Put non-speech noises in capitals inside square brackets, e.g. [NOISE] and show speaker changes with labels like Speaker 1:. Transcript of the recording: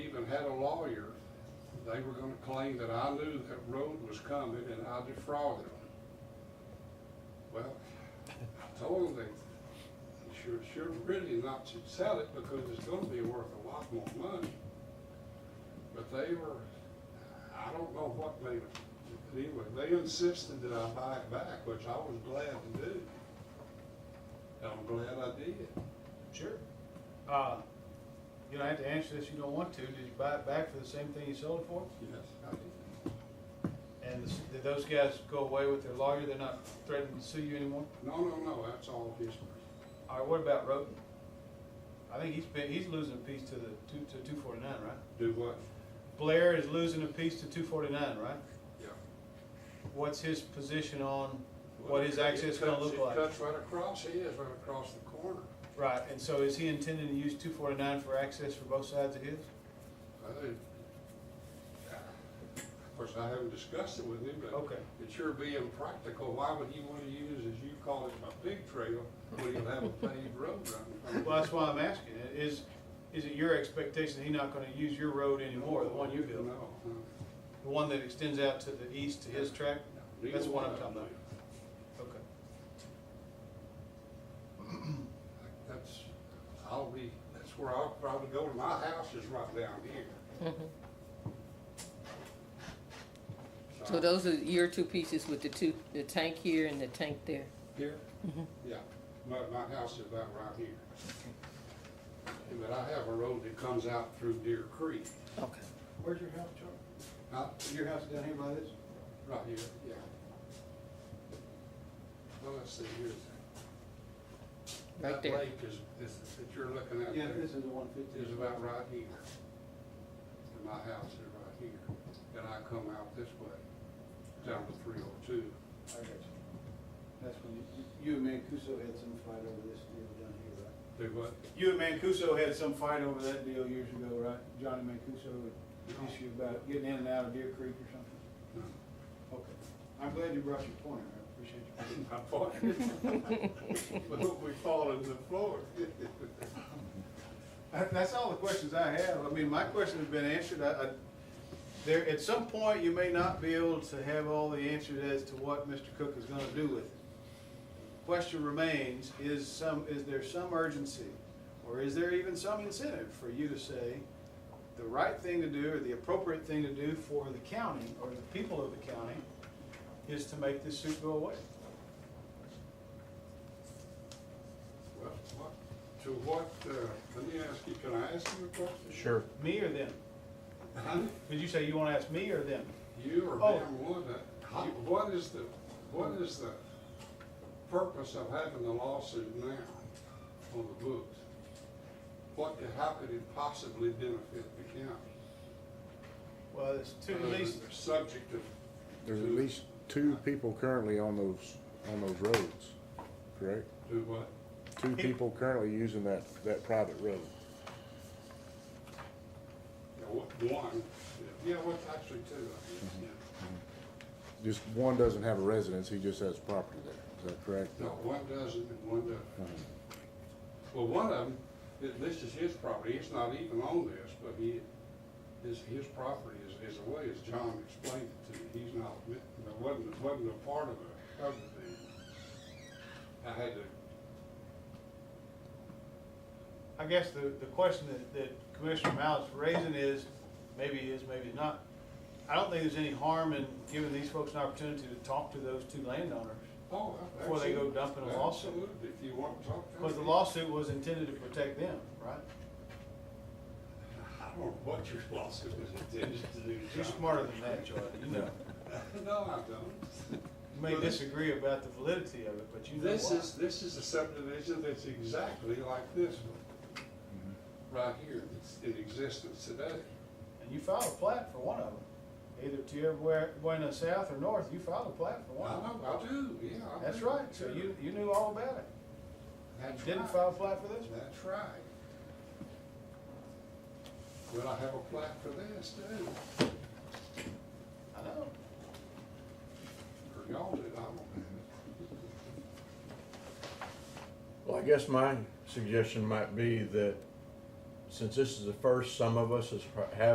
Speaker 1: had a lawyer, they were gonna claim that I knew that road was coming and I defrauded them. Well, I told them they should, should really not should sell it because it's gonna be worth a lot more money. But they were, I don't know what they, anyway, they insisted that I buy it back, which I was glad to do. And I'm glad I did.
Speaker 2: Sure. Uh, you don't have to answer this, you don't want to. Did you buy it back for the same thing you sold it for?
Speaker 1: Yes, I did.
Speaker 2: And this- did those guys go away with their lawyer? They're not threatening to sue you anymore?
Speaker 1: No, no, no, that's all history.
Speaker 2: All right, what about Roden? I think he's been, he's losing a piece to the two, to two forty-nine, right?
Speaker 1: Do what?
Speaker 2: Blair is losing a piece to two forty-nine, right?
Speaker 1: Yeah.
Speaker 2: What's his position on what his access gonna
Speaker 1: It
Speaker 2: look
Speaker 1: cuts- It
Speaker 2: like?
Speaker 1: cuts right across, he is right across the corner.
Speaker 2: Right, and so is he intending to use two forty-nine for access for both sides of his?
Speaker 1: I think- Of course, I haven't discussed it with him, but
Speaker 2: Okay.
Speaker 1: it sure be impractical. Why would he want to use, as you call it, a big trail when you have a paved road running?
Speaker 2: Well, that's why I'm asking. Is, is it your expectation that he's not gonna use your road anymore, the one you built?
Speaker 1: No. no.
Speaker 2: The one that extends out to the east to his track? That's the one I'm talking about. Okay.
Speaker 1: That's, I'll be, that's where I'll probably go to. My house is right down here.
Speaker 3: Mm-hmm. So those are your two pieces with the two, the tank here and the tank there.
Speaker 1: Here?
Speaker 3: Mm-hmm.
Speaker 1: Yeah, my, my house is about right here. But I have a road that comes out through Deer Creek,
Speaker 3: Okay.
Speaker 2: Where's your house, Charlie?
Speaker 1: not
Speaker 2: Your house down here by this?
Speaker 1: right here, yeah. Well, let's see, here's that.
Speaker 3: Right there.
Speaker 1: That lake is, is, that you're looking at there
Speaker 2: is the one
Speaker 1: is about right here. And my house is right here, and I come out this way, down to three oh two.
Speaker 2: That's when you, you and Mancuso had some fight over this deal down here, right?
Speaker 1: Do what?
Speaker 2: You and Mancuso had some fight over that deal years ago, right? Johnny Mancuso,
Speaker 1: No.
Speaker 2: issue about getting in and out of Deer Creek or something?
Speaker 1: No.
Speaker 2: Okay. I'm glad you brought your point, I appreciate you. [LAUGHS]
Speaker 1: I fought. [LAUGHS] Well, we fall in the floor.
Speaker 2: [LAUGHS] That- That's all the questions I have. I mean, my question has been answered. I, I, there, at some point, you may not be able to have all the answers as to what Mr. Cook is gonna do with it. Question remains, is some, is there some urgency? Or is there even some incentive for you to say the right thing to do or the appropriate thing to do for the county or the people of the county is to make this suit go away?
Speaker 1: Well, what, to what, uh, let me ask you, can I ask you a question?
Speaker 4: Sure.
Speaker 2: Me or them?
Speaker 1: Huh?
Speaker 2: Did you say you wanna ask me or them?
Speaker 1: You or
Speaker 2: Oh.
Speaker 1: them would, uh, how- what is the, what is the purpose of having the lawsuit now on the books? What, could- how could it possibly benefit the county?
Speaker 2: Well, there's two, at least,
Speaker 1: The Subject of.
Speaker 4: There's at least two people currently on those, on those roads, correct?
Speaker 1: Do what?
Speaker 4: Two people currently using that, that private road.
Speaker 1: Yeah, what- One, yeah, what's actually two, I guess, yeah.
Speaker 4: Just one doesn't have a residence, he just has property there, is that correct? Uh-huh.
Speaker 1: No, one doesn't and one doesn't. Well, one of them, this is his property, it's not even on this, but he, his, his property is, is a way, as John explained it to me, he's not, it wasn't, it wasn't a part of a, of the, I had to,
Speaker 2: I guess the, the question that, that Commissioner Mallett is raising is, maybe it is, maybe it's not. I don't think there's any harm in giving these folks an opportunity to talk to those two landowners.
Speaker 1: oh.
Speaker 2: Before they go dumping a lawsuit.
Speaker 1: Absolutely, if you want to talk to
Speaker 2: Because the
Speaker 1: me.
Speaker 2: lawsuit was intended to protect them, right?
Speaker 1: I don't know what your lawsuit was intended to do,
Speaker 2: You're
Speaker 1: John.
Speaker 2: smarter than that, Joy, you know.
Speaker 1: [LAUGHS] No, I don't.
Speaker 2: You may disagree about the validity of it, but you know
Speaker 1: This
Speaker 2: why.
Speaker 1: is, this is a subdivision that's exactly like this one,
Speaker 2: Mm-hmm.
Speaker 1: right here, that's in existence today.
Speaker 2: And you filed a plat for one of them. Either to your where, going south or north, you filed a plat for
Speaker 1: I
Speaker 2: one of them.
Speaker 1: know, I do, yeah. I
Speaker 2: That's
Speaker 1: do.
Speaker 2: right, so you, you knew all about it.
Speaker 1: That's
Speaker 2: Didn't
Speaker 1: right.
Speaker 2: file a plat for this one.
Speaker 1: That's right. But I have a plaque for this too,
Speaker 2: I know.
Speaker 1: or y'all did, I don't have
Speaker 5: Well, I guess my suggestion might be that since this is the first some of us has pro- have